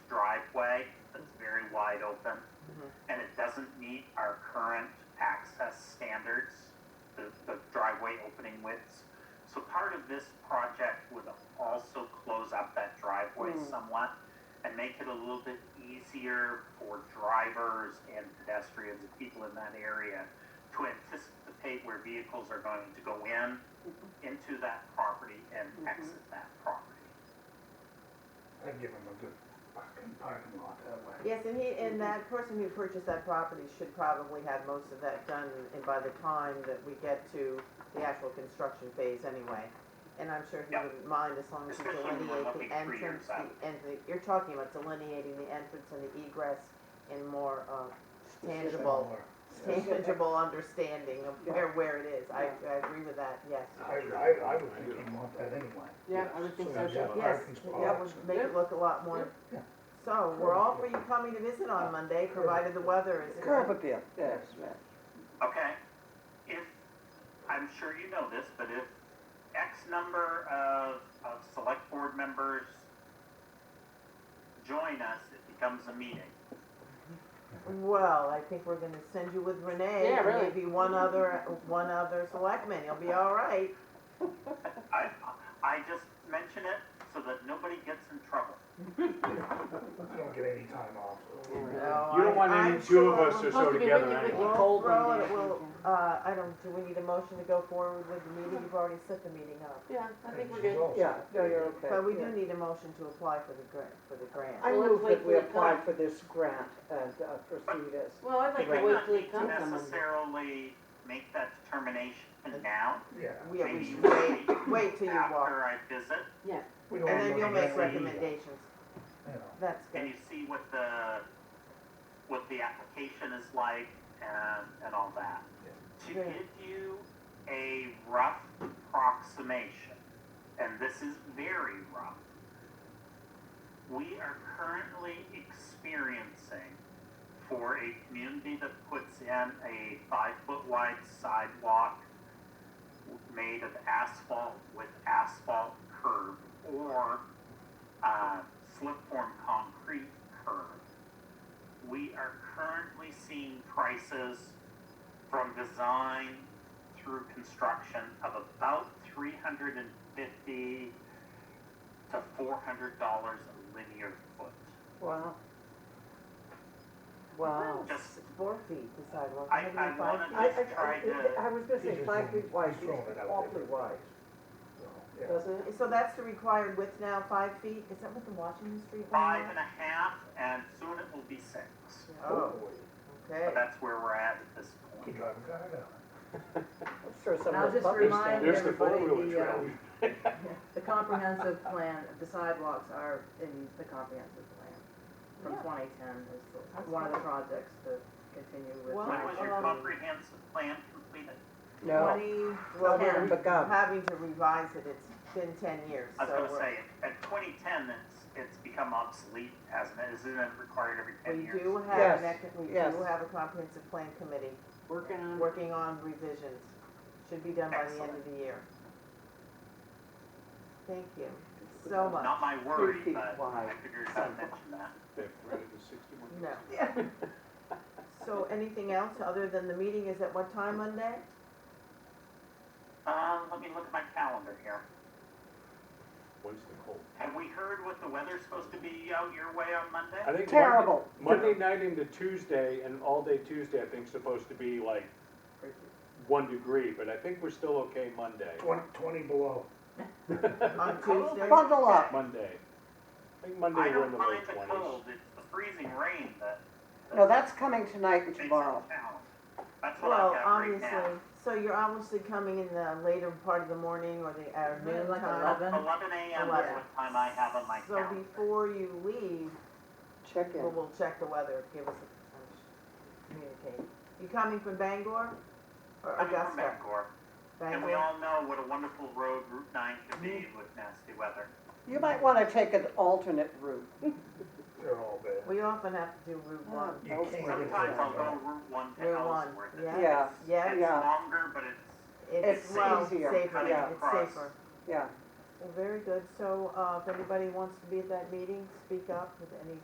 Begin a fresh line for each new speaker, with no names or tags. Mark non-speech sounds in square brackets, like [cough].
Mm-hmm. doesn't meet our current access standards, the, the driveway opening widths. So part of this project would also close up that driveway
Hmm.
somewhat and make it a little bit easier for drivers and pedestrians and people in that area to anticipate where vehicles are going to go in, into that property and
Mhm.
exit that property.
I'd give him a good fucking parking lot that way.
Yes, and he,
Mm-hmm.
and that person who purchased that property should probably have most of that done, and by the time that we get to the actual construction phase anyway. And I'm sure he
Yeah.
wouldn't mind as long as you
Especially when we're
delineate the
looking three
entrance,
years
the,
out.
and the, you're talking about delineating the entrance and the egress in more, uh, tangible, tangible understanding of where, where it is. I, I agree with that, yes.
I, I, I would think he'd want that anyway.
Yeah, I would think so
Yeah.
too.
Yes,
Parking
that would
spots.
make it look a lot more.
Yeah.
So, we're all for you coming to visit on Monday, provided the weather is.
Curb appeal, yes, right.
Okay, if, I'm sure you know this, but if X number of, of select board members join us, it becomes a meeting.
Well, I think we're gonna send you with Renee.
Yeah,
and
really.
Maybe one other, one other selectman, you'll be all right.
I, I just mention it so that nobody gets in trouble.
You don't get any time off.
No,
You
I-
don't want any
I'm
two of
sure
us
we'll-
to show
supposed to be
together
Ricky,
anyway.
Ricky.
We'll
Cold one
throw
day,
it,
I
we'll,
think.
uh, I don't, do we need a motion to go forward with the meeting? You've already set the meeting up.
Yeah, I think we're
She's
good.
also-
Yeah.
No, you're okay.
But we do need a motion to apply for the grant, for the grant.
I
Well,
move
let's
that
wait
we
till it
apply
comes.
for this grant and uh, proceed as,
Well, I'd like
We
to
might
wait
not
till he
need to
comes on Monday.
Necessarily make that determination now.
Yeah,
Yeah.
we
Maybe
should
we
wait,
should
wait till you walk.
After I visit,
We
And
don't want
then you'll
to
make
get any,
recommendations.
you know,
That's
and
good.
you see what the, what the application is like and, and all that. To
Yeah.
give you a rough approximation, and this is very rough, we are currently experiencing for a community that puts in a five-foot wide sidewalk made of asphalt with asphalt curb or uh, slip form concrete curb. We are currently seeing prices from design through construction of about three hundred and fifty to four hundred dollars a linear foot.
wow. Wow.
Just-
Four feet, the sidewalk.
I-
How do you
I
find
wanna
it?
I, I,
Just try to-
I- I was gonna
He's
say
just
five
throwing-
feet wide,
he's
it's
throwing it out
awfully
there.
wide,
so, yeah.
doesn't it?
So that's the required width now, five feet? Is that what the Washington Street one
Five
was?
and a half, and soon it will be six.
Oh,
Hopefully,
okay.
But that's where we're at at this
Keep
point.
driving car down.
I'm sure some
I'll
of those
just
puppies
remind
down
There's the
everybody
four-wheeler
the,
uh,
trail.
um, The comprehensive plan, the sidewalks are in the comprehensive plan from
Yeah.
twenty ten is
That's
the- one of the projects to continue with.
Well,
When was your
Um,
comprehensive plan completed?
No,
Twenty,
no,
well,
we haven't
we're
begun.
having to revise it, it's been ten years,
I was
so
gonna
we're-
say, at twenty ten, it's, it's become obsolete, hasn't it? Isn't it required every ten
we
years?
do have,
Yes,
an ec- we do
yes.
have a comprehensive plan committee
Working on.
working on revisions. Should be done by the end of the year. Thank you so much.
Not my worry,
feet
but I
wide.
figured I'd mention that.
They've rented the 61.
No. So anything else other than the meeting is at what time Monday?
Um, let me look at my calendar here.
When's the cold?
Have we heard what the weather's supposed to be out your way on
I
Monday?
think
Terrible.
Monday Monday night into Tuesday and all day Tuesday, I think, supposed to be like one degree, but I think we're still okay Monday.
Twenty, twenty below.
On Tuesday?
Bundle up.
[laughs] Monday. I think Monday
I
we're
don't
in the low
mind the
twenties.
cold, it's the freezing rain that.
No, that's coming tonight and
makes it
tomorrow.
challenge. That's what I've
Well,
got right
obviously,
now.
so you're obviously coming in the later part of the morning or the uh, noon
Like
time.
eleven.
Eleven AM is
Eleven.
what time I have on my
So
calendar.
before you leave,
Check in.
we'll, we'll check the weather, give us, a- communicate. You coming from Bangor or
Coming from
Augusta?
Bangor, and we
Bangor?
all know what a wonderful road Route nine can be with nasty weather.
You might wanna take an alternate route.
They're all bad.
We often have to do Route One.
You can't get
Sometimes I'll
there.
go Route one to
Route one,
Oh, Ellsworth.
yeah.
Yeah,
Yeah,
It's
yeah.
longer, but it's
it's,
It's
well,
easier,
safer, it's safer.
cutting across.
yeah.
Well, very good, so, uh, if anybody wants to be at that meeting, speak up with any